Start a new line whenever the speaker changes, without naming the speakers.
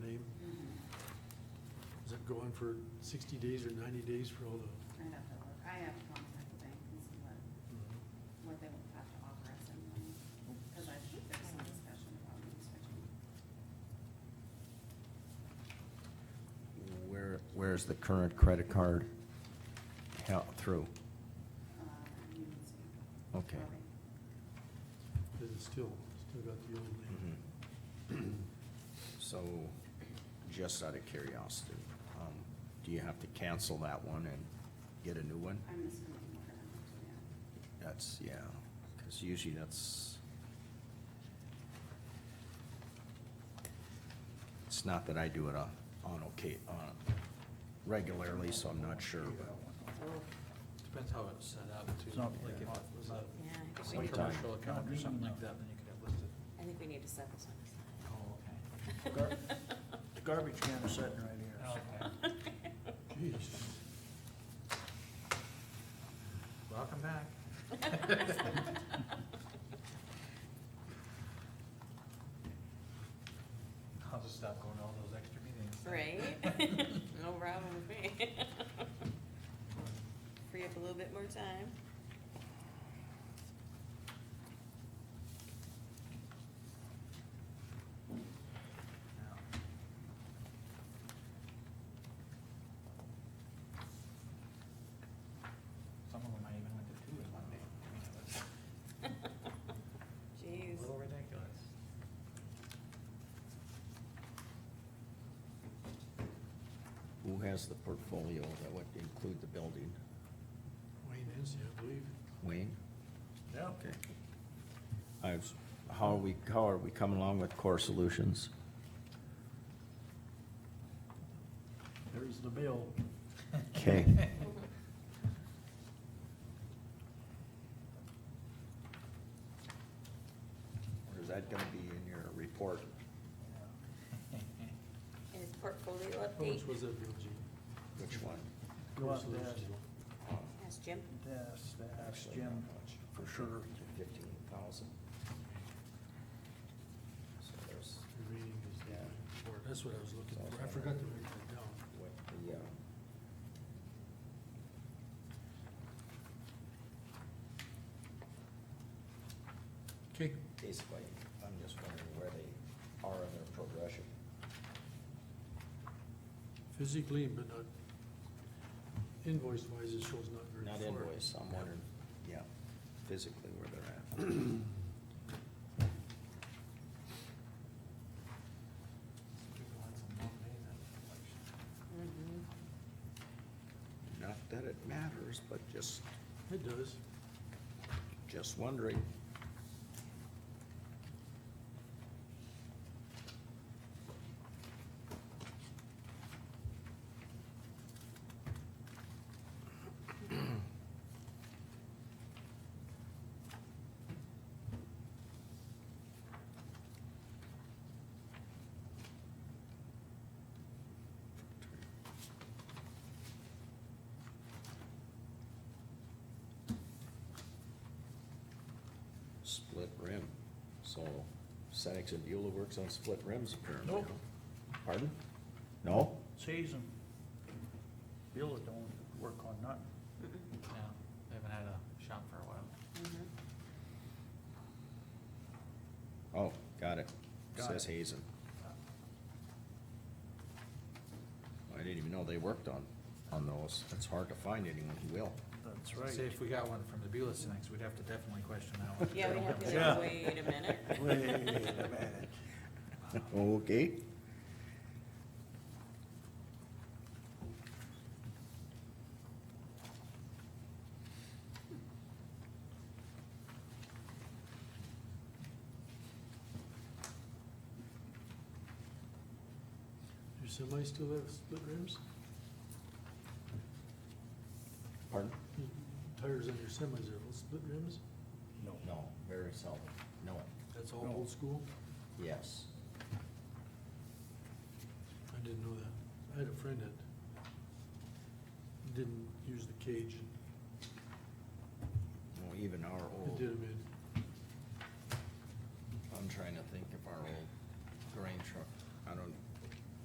go in for sixty days or ninety days for all the.
I'd have to look, I have to contact the bank and see what,
Mm-hmm.
what they would have to offer us in loan, cause I think there's some discussion about me switching.
Where, where's the current credit card? How, through?
Uh, Union City.
Okay.
Probably.
Cause it's still, still got the old name.
Mm-hmm. So, just out of curiosity, um, do you have to cancel that one and get a new one?
I'm assuming we're gonna have to, yeah.
That's, yeah, because usually that's. It's not that I do it on, on okay, on regularly, so I'm not sure, but
Depends how it's set up too.
It's not-
Like if it was a
Yeah, I
a
think we need,
Sometime.
commercial account or something like that, then you could have listed.
I think we need to set this one
Oh, okay.
Gar- The garbage can is sitting right here.
Oh.
so- Mm-hmm.
Jeez,
Welcome back. I'll just stop going to all those extra meetings.
Right? No problem with me. Free up a little bit more time.
Some of them I even went to two in one day. I mean, it was
Jeez.
A little ridiculous.
who has the portfolio that would include the building?
Wayne Hensey, I believe.
Wayne?
Yeah.
Okay. I was, how are we, how are we coming along with Core Solutions?
There's the bill.
Okay. Or is that gonna be in your report?
And his portfolio
How
update,
much was that bill, Gene?
Which one?
You want to
Solutions
ask,
bill.
ask Jim.
ask, ask Jim for sure.
Fifteen thousand. So there's
Remaining is the
Yeah.
report. That's what I was looking for. I forgot to write that down.
what the, uh,
Okay.
basically, I'm just wondering where they are in their progression.
Physically, but not invoice wise, it shows not very
Not
far.
invoice, I'm wondering, yeah, physically where they're at.
People had some long days after the election.
Mhm.
Not that it matters, but just,
It does.
just wondering. Split rim, so Senex and Beulah works on split rims apparently.
Nope.
huh? Pardon? No?
Season. Bill don't work on nothing.
Yeah, they haven't had a shop for a while.
Mhm.
Oh, got it.
Got
Says
it.
Hazen. I didn't even know they worked on, on those. It's hard to find anyone who will.
That's
Say
right.
if we got one from the Beulah Cinex, we'd have to definitely question that one.
Yeah, we have to,
Yeah.
like, wait a minute.
Wait a minute.
Okay.
Do semis still have split rims?
Pardon?
Tires on your semis are all split rims?
No.
No, very seldom. No.
That's all
No.
old school?
Yes.
I didn't know that. I had a friend that didn't use the cage
Well, even our
and it
old,
Oh. did him in.
I'm trying to think if our old